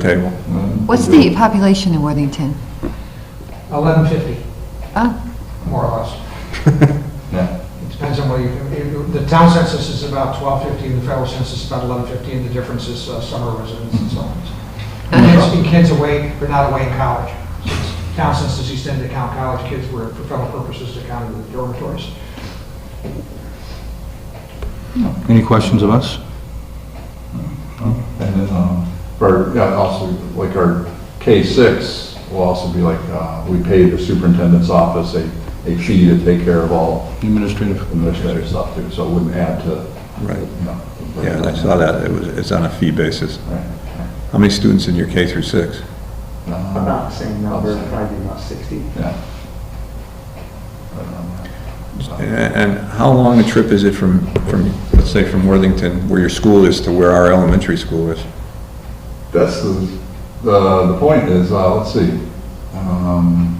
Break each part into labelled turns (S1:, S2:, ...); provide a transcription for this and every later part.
S1: table.
S2: What's the population in Worthington?
S3: 1150,
S2: Oh,
S3: more or less.
S4: Yeah.
S3: It Depends on where you, if- the town census is about 1250, and the federal census is about 1150, and the difference is uh, summer residence and so on. And Kids, and kids away, but not away in college. Since Town census used to tend to count college kids were, for federal purposes, to count in the dormitories.
S1: Any questions of us?
S4: And then, um, or, yeah, also, like our K-6 will also be like, uh, we pay the superintendent's office a, a fee to take care of all
S1: Administrative.
S4: administrative stuff too, so it wouldn't add to,
S1: Right,
S4: you know.
S1: yeah, I saw that, it was, it's on a fee basis.
S4: Right.
S1: How many students in your K through six?
S4: Uh,
S5: About the same number, probably about 60.
S4: Yeah. But, um,
S1: A- And how long a trip is it from, from, let's say, from Worthington, where your school is, to where our elementary school is?
S4: That's the, the, the point is, uh, let's see, um,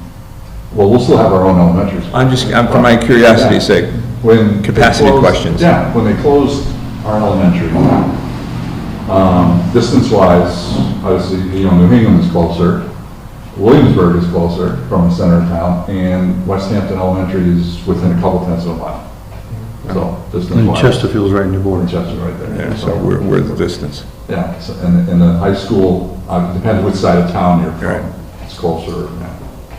S4: well, we'll still have our own elementary school.
S1: I'm just, I'm, for my curiosity's sake,
S4: When. they
S1: Capacity
S4: closed-
S1: questions.
S4: Yeah, when they closed our elementary, um, distance-wise, obviously, you know, New Hingham is closer, Williamsburg is closer from the center of town, and West Hampton Elementary is within a couple tenths of a mile. So,
S6: And
S4: distance-wise.
S6: Chesterfield's right in your border.
S4: Chester right there.
S1: yeah, so we're, we're the distance.
S4: Yeah, so- and, and the high school, uh, depends which side of town you're
S1: Right.
S4: from. It's closer, yeah.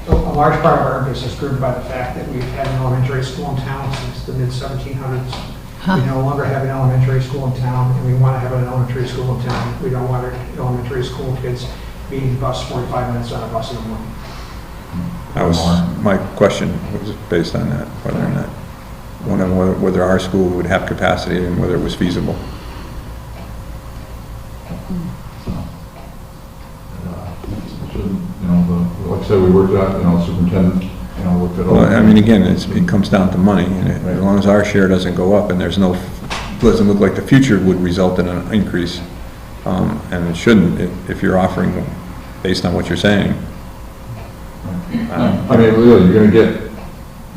S3: So a large part of our increase is driven by the fact that we've had an elementary school in town since the mid-1700s. We no longer have an elementary school in town, and we want to have an elementary school in town. We don't want our elementary school kids being bused 45 minutes on a bus in the morning.
S1: That was, my question was based on that, whether or not, wondering whether- whether our school would have capacity and whether it was feasible.
S4: Should, You know, the, like I said, we worked out, you know, superintendent, you know, looked at all.
S1: Well, I mean, again, it's, it comes down to money, and it- as long as our share doesn't go up, and there's no, doesn't look like the future would result in an increase, um, and it shouldn't, if, if you're offering, based on what you're saying.
S4: I mean, really, you're gonna get,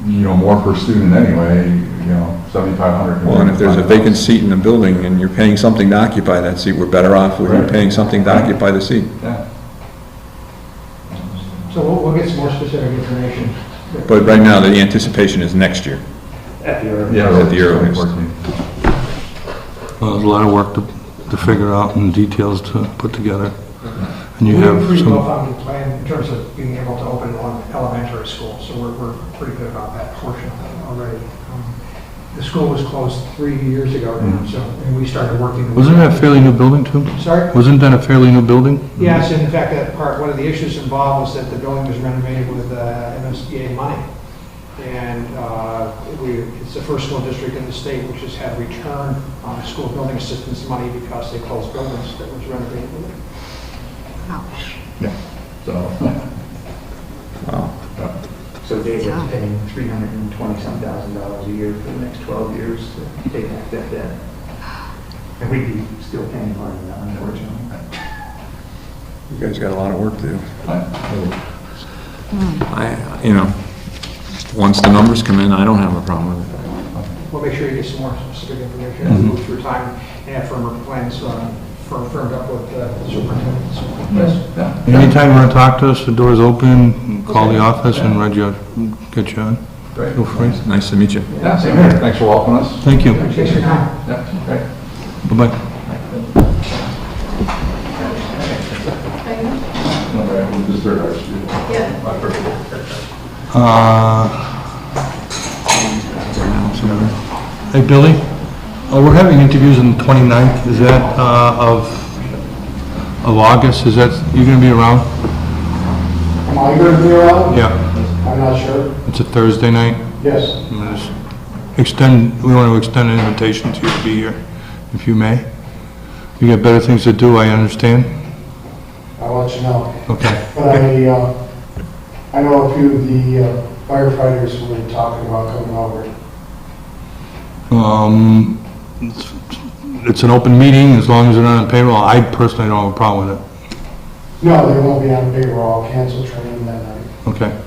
S4: you know, more per student anyway, you know, seventy-five hundred.
S1: Well, and if there's a vacant seat in the building, and you're paying something to occupy that seat, we're better off with you
S4: Right.
S1: paying something to occupy the seat.
S4: Yeah.
S3: So we'll, we'll get some more specific information.
S1: But right now, the anticipation is next year.
S5: At the earliest.
S4: Yeah,
S1: At the earliest.
S4: 14.
S6: Well, There's a lot of work to, to figure out and details to put together. And you
S3: We have a
S6: have
S3: pretty
S6: some,
S3: well-founded plan in terms of being able to open one elementary school, so we're, we're pretty good about that portion of it already. Um, The school was closed three years ago now, so, and we started working.
S6: Mm. wasn't that a fairly new building too?
S3: Sorry?
S6: Wasn't that a fairly new building?
S3: Yes, and in fact, that part, one of the issues involved was that the building was renovated with uh, MSBA money. And uh, we, it's the first school district in the state which has had return on school building assistance money because they closed buildings that was renovated with it.
S4: So,
S5: So they were paying 320-some thousand dollars a year for the next 12 years to pay back that debt. And we'd be still paying part of that, unfortunately.
S1: You guys got a lot of work to do.
S4: I-
S1: I, you know, once the numbers come in, I don't have a problem with it.
S3: We'll make sure you get some more specific information as we move through time and have firmer plans uh, fir- firmed up with uh, the superintendent. So, Yes.
S4: yeah.
S6: Anytime you want to talk to us, the door's open, call the office and Reggie will get you on.
S4: Great.
S6: Feel free.
S1: Nice to meet you.
S4: Yeah, same here. Thanks for welcoming us.
S6: Thank you.
S3: Appreciate your time.
S4: Yeah, great.
S6: Bye-bye.
S4: All right, we'll just start our school.
S7: Yeah.
S4: My first.
S6: Uh, Hey, Billy, uh, we're having interviews on the 29th, is that uh, of, of August, is that, you gonna be around?
S8: Am I going to be around?
S6: Yeah.
S8: I'm not sure.
S6: It's a Thursday night,
S8: Yes.
S6: I'm gonna just extend, we want to extend an invitation to you to be here, if you may. You got better things to do, I understand,
S8: I'll let you know.
S6: okay.
S8: But I, uh, I know a few of the uh, firefighters who were talking about coming over.
S6: Um, it's- It's an open meeting, as long as they're not on payroll, I personally don't have a problem with it.
S8: No, they won't be on payroll. I'll cancel training that night.
S6: Okay.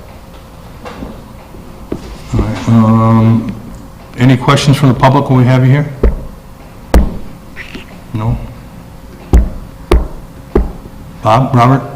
S6: All right, um, Any questions from the public when we have you here? No? Bob, Robert?